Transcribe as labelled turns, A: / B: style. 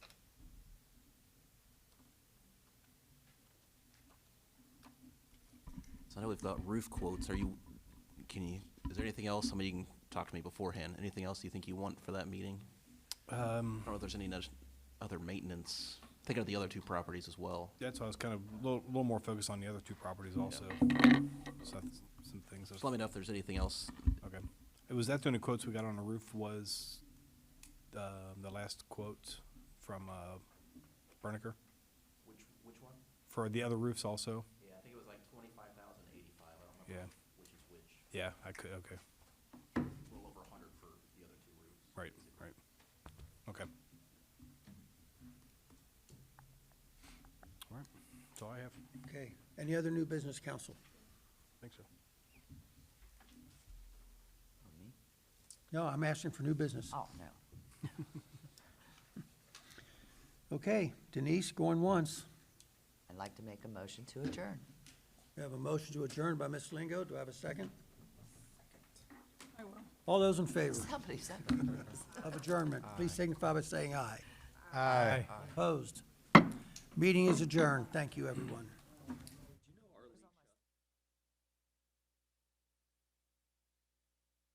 A: So I know we've got roof quotes. Are you, can you, is there anything else? Somebody can talk to me beforehand. Anything else you think you want for that meeting? I
B: Um,
A: don't know if there's any nudge- other maintenance, thinking of the other two properties as well.
B: that's why I was kind of a little, little more focused on the other two properties also. So that's some things.
A: Just let
B: that's-
A: me know if there's anything else.
B: Okay. It was that doing the quotes we got on the roof was, um, the last quote from, uh, Berniker
A: Which, which one?
B: for the other roofs also.
A: Yeah, I think it was like twenty-five thousand eighty-five. I don't
B: remember
A: which is which.
B: Yeah, I could, okay.
A: A little over a hundred for the other two roofs.
B: Right, right. Okay. All right. That's all I have.
C: Okay, any other new business, council?
B: Thanks, so.
C: No, I'm asking for new business.
D: Oh, no.
C: Okay, Denise, going once.
D: I'd like to make a motion to adjourn.
C: We have a motion to adjourn by Ms. Lingo. Do I have a second? All those in favor
D: Somebody said.
C: of adjournment, please signify by saying aye. Aye. Opposed? Meeting is adjourned. Thank you, everyone.